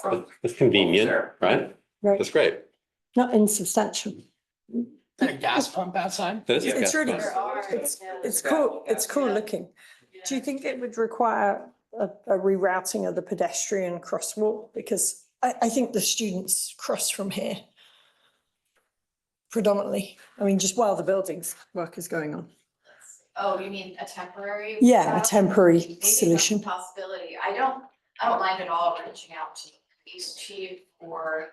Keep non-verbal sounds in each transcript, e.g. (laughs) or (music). from. It's convenient, Sure. right? Right, That's great. not insubstantial. There a gas pump outside? That is Yeah. a It's gas really, pump. There are, it's, yeah, it's there's a cool, couple it's gas- cool yeah. looking. Do you think it would require a, a rerouting of the pedestrian crosswalk? Because I, I think the students cross from here predominantly. I mean, just while the buildings work is going on. Oh, you mean a temporary? Yeah, a route? temporary Maybe that's a solution. Possibility. I don't, I don't mind at all reaching out to the police chief or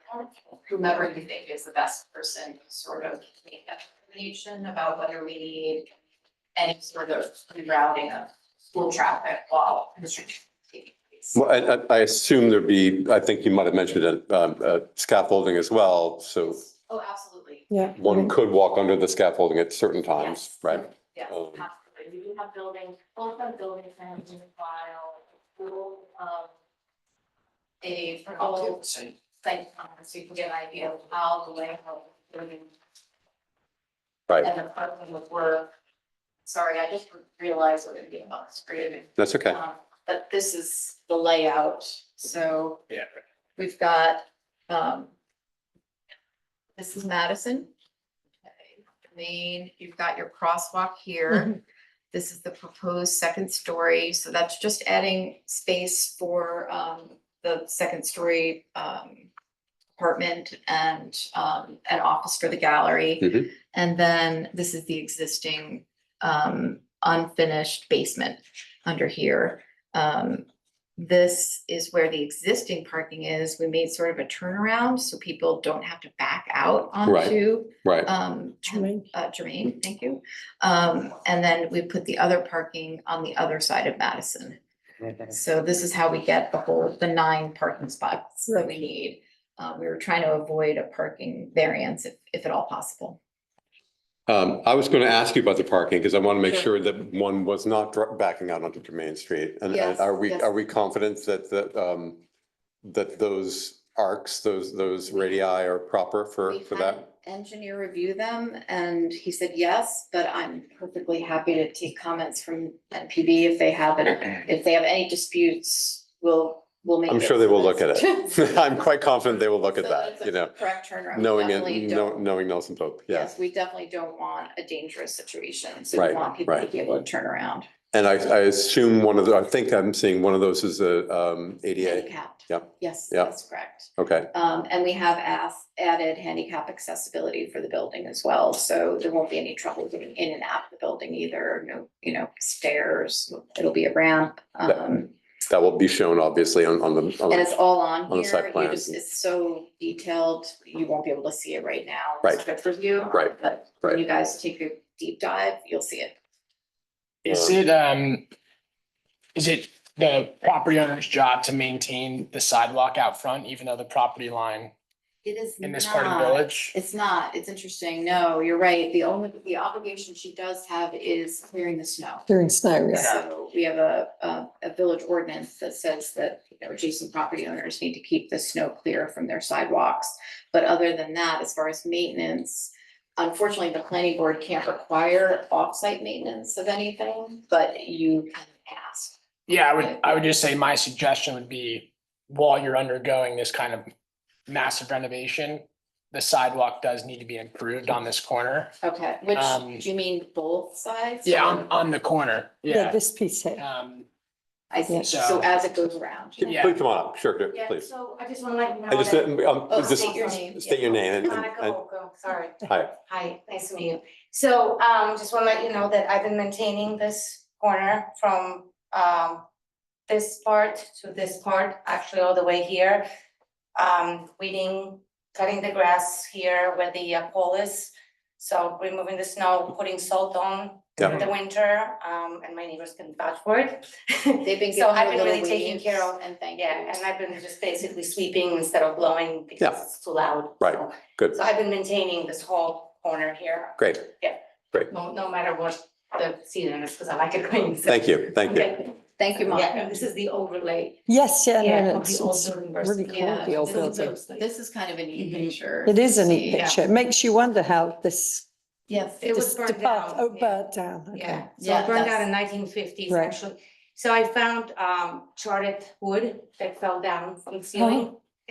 whomever you think is the best person to sort of make that determination about whether we need any sort of rerouting of school traffic while construction. is taking place. Well, and I, I assume there'd be, I think you might have mentioned it, um, uh, scaffolding as well. So Oh, absolutely. Yeah. one could walk under the scaffolding at certain times, Mm-hmm. Yes. right? Yes, Um, absolutely. We do have building, both have building plans in the file, we'll, um, a full site plan, so you can get an idea of how the layout of the building Right. and the parking would work. Sorry, I just realized we're gonna be about screen. That's okay. Um, but this is the layout, so. Yeah. We've got, um. This is Madison. Okay, Main, you've got your crosswalk here. This is the proposed second story, so that's just adding space for, um, the second story, um. Apartment and, um, an office for the gallery. Mhm. And then this is the existing, um, unfinished basement under here. Um, this is where the existing parking is. We made sort of a turnaround so people don't have to back out Right. onto, Right. um, Jermaine. uh, Jermaine, thank you. Um, and then we put the other parking on the other side of Madison. So this is how we get the whole, the nine parking spots that we need. Uh, we were trying to avoid a parking variance if, if at all possible. Um, I was going to ask you about the parking because I want to make sure Sure. that one was not dr- backing out onto Jermaine Street. And and Yes, are we, yes. are we confident that, that, um, that those arcs, those, those radii are proper for, We for had an that? Engineer review them and he said yes, but I'm perfectly happy to take comments from NPD if they have (clears throat) it. If they have any disputes, we'll, we'll make. I'm sure they will look (laughs) at (laughs) it. I'm quite confident they will look at So that's that, a you know, Correct turnaround. We knowing it, definitely know- don't- knowing Nelson Pope, yes. Yes, we definitely don't want a dangerous situation, so we Right, want people to right. be able to turn around. And I, I assume one of the, I think I'm seeing one of those is a, um, ADA. Handicapped. Yep, Yes, yep. that's correct. Okay, Um, and we have asked, added handicap accessibility for the building as well, so there won't be any trouble getting in and out of the building either, no, you know, stairs, it'll be a ramp. Um, that will be shown obviously on, on the, uh, on and the- it's all on On the site here, you plan. just, it's so detailed, you won't be able to see it right now. It's Right. Good for you. Right, But when you guys take a deep dive, you'll see it. Is it, um, is it the property owner's job to maintain the sidewalk out front, even though the property line It is in this part of the not- village? It's not, it's interesting, no, you're right, the only, the obligation she does have is clearing the snow. During snow, yeah. So we have a, a, a village ordinance that says that, you know, adjacent property owners need to keep the snow clear from their sidewalks. But other than that, as far as maintenance, unfortunately, the planning board can't require off-site maintenance of anything, but you can ask. Yeah, I would, I would just say my suggestion would be while you're undergoing this kind of massive renovation, the sidewalk does need to be improved on this corner. Okay, which, Um, do you mean both sides? Yeah, on, on the corner, Yeah, yeah. this piece here. Um, I see, So- so as it goes around. Yeah. please come on up, sure, good, Yeah, please. so I just want to let you know. I just, that- um, Oh, just state your name. state your name and- Monica and, Olco, sorry. hi, Hi, nice to meet you. So um, just want to let you know that I've been maintaining this corner from um, this part to this part, actually all the way here. Um, weeding, cutting the grass here where the uh, pole is. So removing the snow, putting salt on Yeah. in the winter, um, and my neighbors can vouch for it. (laughs) They've been. So giving I've been you little really taking leaves care of And thank you. Yeah, and I've been just basically sweeping instead of blowing because Yeah. it's too loud. Right, so. good. So I've been maintaining this whole corner here, great, no, no matter what the season is, because I like it green. so- thank you, thank you. Okay. Thank you, Yeah, Monica. and this is the overlay, Yes, yeah, yeah, no, of it's, the old it's building really versus. cool, the old This is- building. This is kind of a neat Mm-hmm. picture. It is a to neat see. picture. It makes you wonder how this Yes. It was Just burned depart- down, Oh, yeah. burnt down, okay. Yeah, so it Yeah, burned that's- out in nineteen fifties, Right. actually. So I found um charred wood that fell down from the ceiling.